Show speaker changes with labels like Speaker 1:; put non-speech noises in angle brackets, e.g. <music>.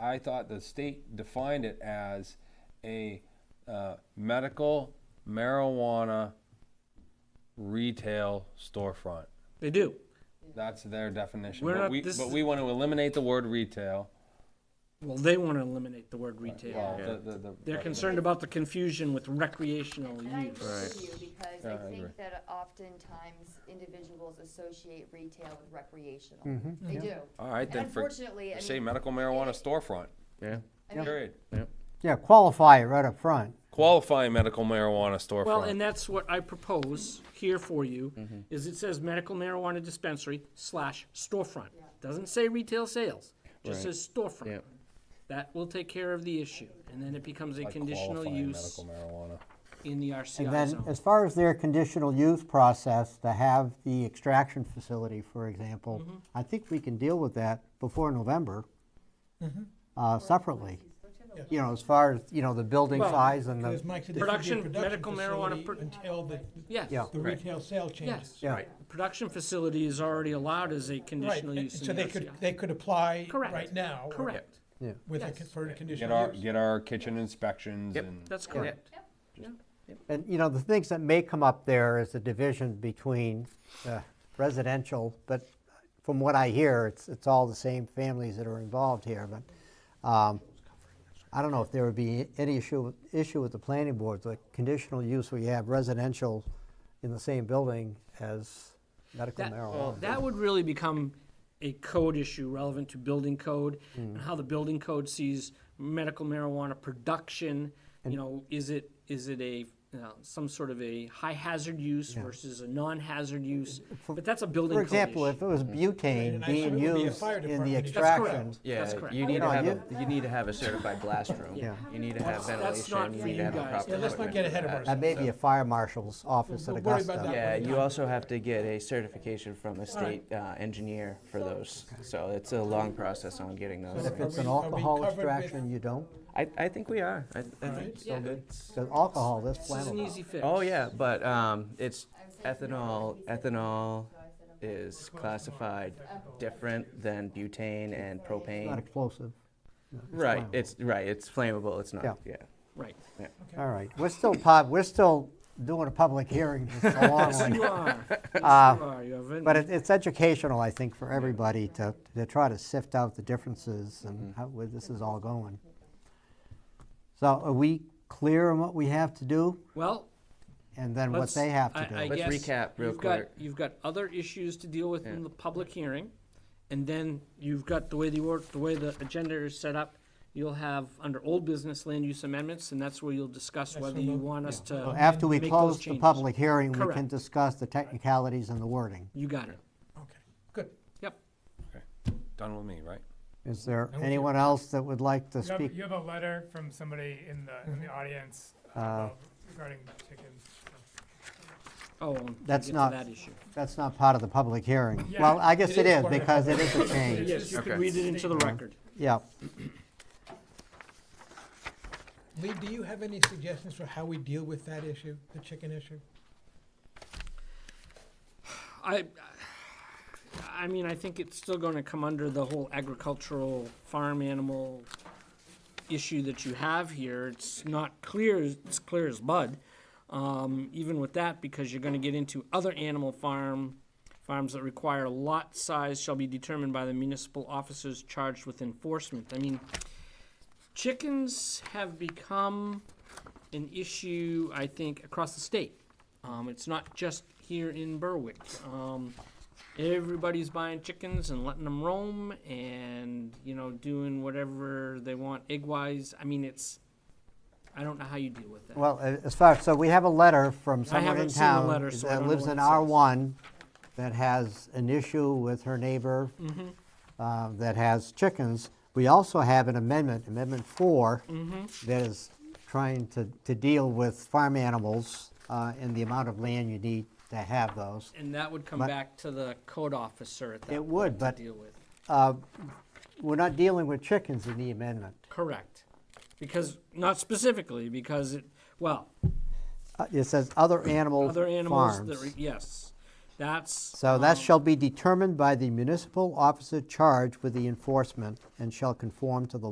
Speaker 1: I thought the state defined it as a uh, medical marijuana retail storefront.
Speaker 2: They do.
Speaker 1: That's their definition.
Speaker 2: We're
Speaker 1: but
Speaker 2: not-
Speaker 1: we
Speaker 2: this
Speaker 1: but
Speaker 2: is-
Speaker 1: we want to eliminate the word retail.
Speaker 2: Well, they want to eliminate the word retail.
Speaker 1: Well, the, the, the,
Speaker 2: They're
Speaker 1: but-
Speaker 2: concerned about the confusion with recreational
Speaker 3: And I
Speaker 2: use.
Speaker 3: agree with you, because
Speaker 1: Yeah,
Speaker 3: I
Speaker 1: I agree.
Speaker 3: think that oftentimes individuals associate retail with recreational. They do.
Speaker 1: All right,
Speaker 3: And
Speaker 1: then for,
Speaker 3: unfortunately, I
Speaker 1: say
Speaker 3: mean,
Speaker 1: medical marijuana storefront.
Speaker 4: Yeah.
Speaker 1: Period.
Speaker 5: Yeah, qualify it right up front.
Speaker 1: Qualifying medical marijuana storefront.
Speaker 2: Well, and that's what I propose here for you, is it says medical marijuana dispensary slash storefront. Doesn't say retail sales, just
Speaker 4: Right.
Speaker 2: says storefront.
Speaker 4: Yep.
Speaker 2: That will take care of the issue, and then it becomes a
Speaker 1: Like
Speaker 2: conditional
Speaker 1: qualifying
Speaker 2: use
Speaker 1: Medical marijuana.
Speaker 2: in the
Speaker 5: And
Speaker 2: RCI
Speaker 5: then,
Speaker 2: zone.
Speaker 5: as far as their conditional use process, to have the extraction facility, for example, I think we can deal with that before November, uh, separately. You know, as far as, you know, the building
Speaker 2: Well,
Speaker 5: size and
Speaker 6: Because
Speaker 5: the,
Speaker 6: Mike said there should be
Speaker 2: Production-
Speaker 6: a production
Speaker 2: medical marijuana
Speaker 6: facility
Speaker 2: pro-
Speaker 6: until the,
Speaker 2: Yes,
Speaker 5: Yeah.
Speaker 6: the retail sale changes.
Speaker 2: yes.
Speaker 5: Yeah.
Speaker 2: The Production facility is already allowed as a
Speaker 6: Right,
Speaker 2: conditional
Speaker 6: and
Speaker 2: use
Speaker 6: so
Speaker 2: in the
Speaker 6: they could,
Speaker 2: RCI.
Speaker 6: they could apply
Speaker 2: Correct.
Speaker 6: right now.
Speaker 2: Correct,
Speaker 6: With a,
Speaker 2: Yes.
Speaker 6: con- for a
Speaker 1: Get our
Speaker 6: conditional use.
Speaker 1: get our kitchen inspections
Speaker 4: Yep.
Speaker 1: and
Speaker 2: that's correct.
Speaker 5: and, you know, the things that may come up there is the division between uh, residential, but from what I hear, it's, it's all the same families that are involved here, but, um, I don't know if there would be any issue, with- issue with the planning board, the conditional use where you have residential in the same building as medical
Speaker 2: That-
Speaker 5: marijuana.
Speaker 2: That would really become a code issue relevant to building code
Speaker 5: Mm.
Speaker 2: and how the building code sees medical marijuana production. You know, is it, is it a, you know, some sort of a high hazard use versus a non-hazard use? But that's a building
Speaker 5: Uh,
Speaker 2: Mm-hmm.
Speaker 5: For
Speaker 2: code
Speaker 5: example,
Speaker 2: issue.
Speaker 5: if it was butane
Speaker 6: and I
Speaker 5: being
Speaker 6: assume it would be a
Speaker 5: used
Speaker 6: fire
Speaker 5: in the
Speaker 6: department issue.
Speaker 2: That's correct.
Speaker 5: extraction,
Speaker 2: That's
Speaker 4: Yeah,
Speaker 2: correct.
Speaker 4: you need
Speaker 5: No,
Speaker 4: to have,
Speaker 5: you-
Speaker 4: a you need to have a certified blast room.
Speaker 2: Yeah.
Speaker 4: You need to
Speaker 2: That's-
Speaker 4: have
Speaker 2: that's
Speaker 4: ventilation,
Speaker 2: not
Speaker 4: you
Speaker 2: for
Speaker 4: need
Speaker 2: you
Speaker 4: to have the
Speaker 2: guys.
Speaker 4: proper
Speaker 2: Yeah,
Speaker 6: let's not
Speaker 4: equipment
Speaker 6: get
Speaker 4: for
Speaker 6: ahead of
Speaker 4: that.
Speaker 5: that
Speaker 6: ourselves.
Speaker 5: may be a fire marshal's office at
Speaker 6: We'll worry about
Speaker 5: Augusta.
Speaker 6: that.
Speaker 4: Yeah,
Speaker 6: one
Speaker 4: you
Speaker 6: time.
Speaker 4: also have to get a certification from a state uh, engineer for those, so it's a long process on getting those.
Speaker 6: So
Speaker 5: If it's
Speaker 6: Are
Speaker 5: an
Speaker 6: we- are we
Speaker 5: alcohol
Speaker 6: covered with-
Speaker 5: extraction, you don't,
Speaker 4: I, I think we are, I, I
Speaker 6: Alright.
Speaker 4: think it's still
Speaker 2: Yeah.
Speaker 4: good.
Speaker 5: because alcohol is
Speaker 2: This is an easy
Speaker 5: flammable.
Speaker 2: fix.
Speaker 4: Oh, yeah, but, um, it's
Speaker 3: I was saying-
Speaker 4: ethanol, ethanol
Speaker 3: So I said, okay.
Speaker 4: is classified different than butane and
Speaker 5: It's Not
Speaker 4: propane.
Speaker 5: explosive.
Speaker 4: Right,
Speaker 5: flammable.
Speaker 4: it's, right, it's flammable, it's
Speaker 5: Yeah.
Speaker 4: not, yeah.
Speaker 2: Right.
Speaker 5: All right, we're still pub, we're still doing a public hearing, it's a
Speaker 2: <laughs>
Speaker 5: long
Speaker 2: Yes,
Speaker 5: <laughs>
Speaker 2: you
Speaker 5: one.
Speaker 2: are. Yes, you
Speaker 5: Uh,
Speaker 2: are. You have
Speaker 5: But
Speaker 2: been-
Speaker 5: it, it's educational, I think, for everybody to, to try to sift out the differences
Speaker 2: Mm-hmm.
Speaker 5: and how, where this is all going. So are we clear on what we have to do
Speaker 2: Well,
Speaker 5: and then what
Speaker 2: Let's-
Speaker 5: they have to
Speaker 2: I-
Speaker 5: do?
Speaker 2: I
Speaker 4: Let's
Speaker 2: guess
Speaker 4: recap real
Speaker 2: you've got-
Speaker 4: quick.
Speaker 2: You've got other issues to deal with in the public hearing, and then you've got the way the, or- the way the agenda is set up, you'll have under old business land use amendments, and that's where you'll discuss whether you want us to
Speaker 5: So After we
Speaker 2: make those
Speaker 5: close the
Speaker 2: changes.
Speaker 5: public hearing, we can
Speaker 2: Correct.
Speaker 5: discuss the technicalities and the wording.
Speaker 2: You got it.
Speaker 6: Okay, good.
Speaker 2: Yep.
Speaker 1: done with me, right?
Speaker 5: Is there anyone else that would like to
Speaker 7: You have,
Speaker 5: speak? Mm-hmm.
Speaker 7: you have a letter from somebody in the, in the audience uh, about regarding chickens.
Speaker 2: Oh, and we'll
Speaker 5: That's
Speaker 2: get to
Speaker 5: not-
Speaker 2: that issue.
Speaker 5: That's not part of the public hearing.
Speaker 7: Yeah,
Speaker 5: Well, I guess
Speaker 6: it
Speaker 5: it
Speaker 6: is
Speaker 5: is
Speaker 6: part of the
Speaker 5: because it is a change.
Speaker 2: Yes, you
Speaker 4: Okay.
Speaker 2: can read it into the record.
Speaker 5: Yeah.
Speaker 6: Lee, do you have any suggestions for how we deal with that issue, the chicken issue?
Speaker 2: I, I mean, I think it's still gonna come under the whole agricultural farm animal issue that you have here. It's not clear, it's clear as mud, um, even with that, because you're gonna get into other animal farm, farms that require lot size shall be determined by the municipal officers charged with enforcement. I mean, chickens have become an issue, I think, across the state. Um, it's not just here in Berwick. Um, everybody's buying chickens and letting them roam and, you know, doing whatever they want egg wise. I mean, it's, I don't know how you deal with that.
Speaker 5: Well, a- as far, so we have a letter from someone
Speaker 2: haven't
Speaker 5: in
Speaker 2: seen the
Speaker 5: town
Speaker 2: letter, so I
Speaker 5: that
Speaker 2: don't know
Speaker 5: lives
Speaker 2: what
Speaker 5: in
Speaker 2: it says.
Speaker 5: R1 that has an issue with her neighbor
Speaker 2: Mm-hmm.
Speaker 5: uh, that has chickens. We also have an amendment, Amendment 4,
Speaker 2: Mm-hmm.
Speaker 5: that is trying to, to deal with farm animals uh, and the amount of land you need to have those.
Speaker 2: and that would come
Speaker 5: but-
Speaker 2: back to the code officer at that
Speaker 5: It
Speaker 2: point
Speaker 5: would,
Speaker 2: to
Speaker 5: but-
Speaker 2: deal with.
Speaker 5: We're not dealing with chickens in the amendment.
Speaker 2: Correct. Because, not specifically, because it, well,
Speaker 5: Uh, It says other animal
Speaker 2: other animals that, re-
Speaker 5: farms.
Speaker 2: yes, that's.
Speaker 5: So
Speaker 2: um,
Speaker 5: that shall be determined by the municipal officer charged with the enforcement and shall conform to the